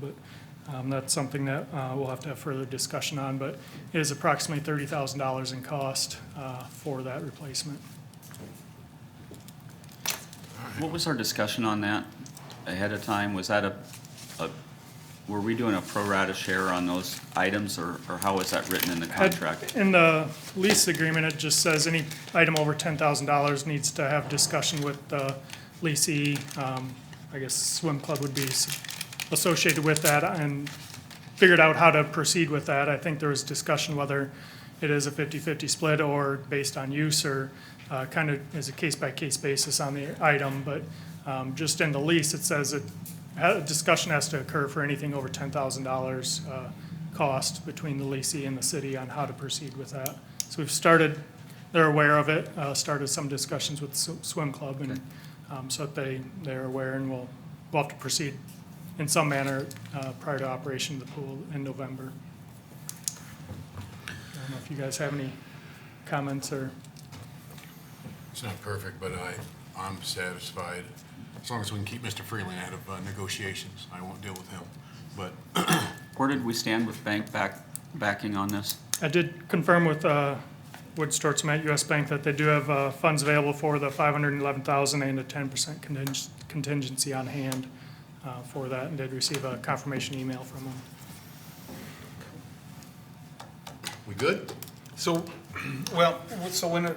but um, that's something that uh, we'll have to have further discussion on, but it is approximately thirty thousand dollars in cost uh, for that replacement. What was our discussion on that ahead of time? Was that a, a, were we doing a pro rata share on those items, or, or how was that written in the Had- contract? In the lease agreement, it just says any item over ten thousand dollars needs to have discussion with the leasee. Um, I guess swim club would be s- associated with that and figured out how to proceed with that. I think there was discussion whether it is a 50-50 split or based on use or uh, kind of is a case-by-case basis on the item. But um, just in the lease, it says it, a discussion has to occur for anything over $10,000 uh, cost between the leasing and the city on how to proceed with that. So we've started, they're aware of it, uh, started some discussions with Sw- swim club and um, so that they, they're aware and will, will have to proceed in some manner uh, prior to operation of the pool in November. I don't know if you guys have any comments or, It's not perfect, but I, I'm satisfied. As long as we can keep Mr. Freeland out of uh, negotiations, I won't deal with him. But Where did we stand with bank back, backing on this? I did confirm with uh, Wood Stortzman at US Bank that they do have uh, funds available for the 511,000 and a 10% conting- contingency on hand uh, for that, and did receive a confirmation email from them. we good? So, well, so when, are-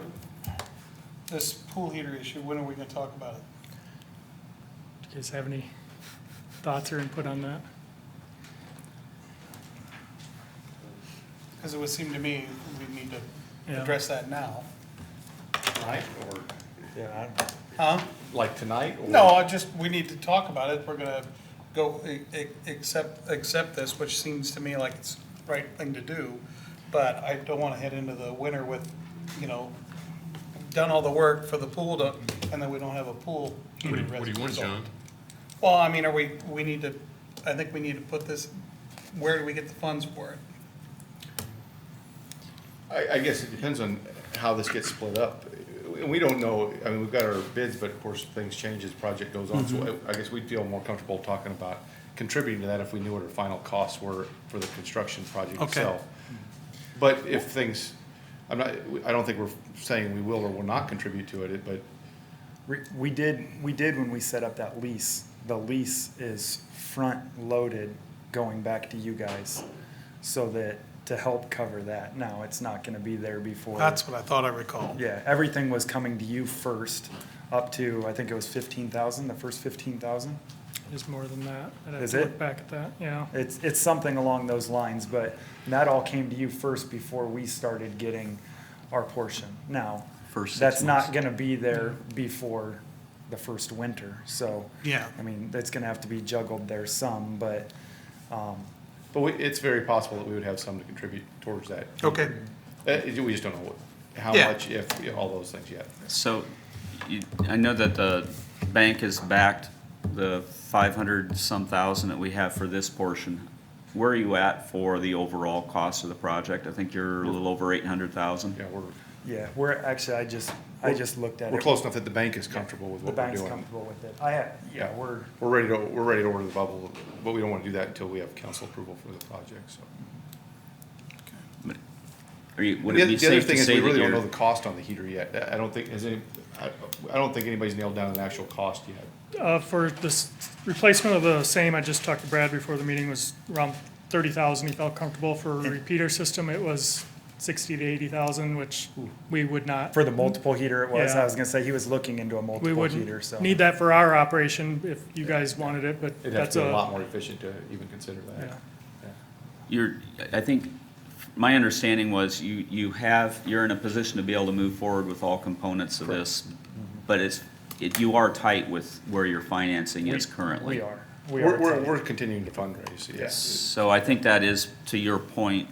this pool heater issue, when are we gonna talk about it? Do you guys have any thoughts or input on that? Because it would seem to me we need to Yeah. address that now, Tonight or, yeah, huh? like tonight? or- No, I just, we need to talk about it, we're gonna go, a- a- accept, accept this, which seems to me like it's the right thing to do, but I don't wanna head into the winter with, you know, done all the work for the pool to, and then we don't have a pool. What do you, heater what do as you a want, result. John? Well, I mean, are we, we need to, I think we need to put this, where do we get the funds for it? I, I guess it depends on how this gets split up. And we don't know, I mean, we've got our bids, but of course, things change as project goes on. So I- I guess we'd feel more comfortable talking about contributing to that if we knew what our final costs were for the construction project Okay. itself. But if things, I'm not, I don't think we're saying we will or will not contribute to it, but We we did, we did when we set up that lease, the lease is front-loaded going back to you guys, so that, to help cover that. Now, it's not gonna be there before. That's what I thought I recalled. Yeah, everything was coming to you first, up to, I think it was fifteen thousand, the first fifteen thousand. It's more than that. I'd have Is to it? look back at that, yeah. It's, it's something along those lines, but that all came to you first before we started getting our portion. Now, First six that's not months. gonna be there before the first winter, so. Yeah. I mean, that's gonna have to be juggled there some, but, um, But we, it's very possible that we would have some to contribute towards that. Okay, Uh, we just don't know what, how Yeah. much, if, all those things yet. So, you, I know that the bank has backed the five hundred some thousand that we have for this portion. Where are you at for the overall cost of the project? I think you're a little over eight hundred thousand. Yeah, we're, yeah, we're, actually, I just, I just looked at it. we're close enough that the bank is comfortable with The what we're bank's doing. comfortable with it. I have, yeah, we're, We're ready to, we're ready to order the bubble, but we don't wanna do that until we have council approval for the project, so. Are you, would The it other- be the other safe to thing is, say we that really don't know the you're? cost on the heater yet. I- I don't think, is any, I, I don't think anybody's nailed down an actual cost yet. Uh, for this replacement of the same, I just talked to Brad before the meeting, was around thirty thousand, he felt comfortable for a repeater system, it was sixty to eighty thousand, which we would not, for the multiple heater it was, Yeah. I was gonna say, he was looking into a we multiple heater, so. wouldn't need that for our operation if you guys wanted it, but It'd have that's to be a lot a, more efficient to even consider yeah. that. You're, I think, my understanding was you, you have, you're in a position to be able to move forward with all components of this, but it's, it, you are tight with where your financing is currently. We are. We We're, are. we're, tight. we're continuing to fundraise, yes. So I think that is, to your point,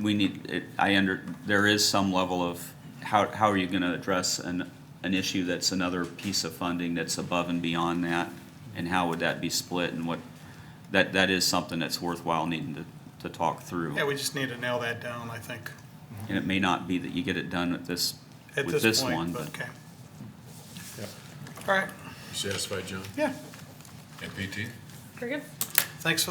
we need, it- I under, there is some level of, how, how are you gonna address an, an issue that's another piece of funding that's above and beyond that? And how would that be split and what, that, that is something that's worthwhile needing to, to talk through. yeah, we just need to nail that down, I think, And it may not be that you get it done at this, at with this this one, point, but but okay. Yeah. All right, You satisfied, John? Yeah. And PT? Very good. thanks for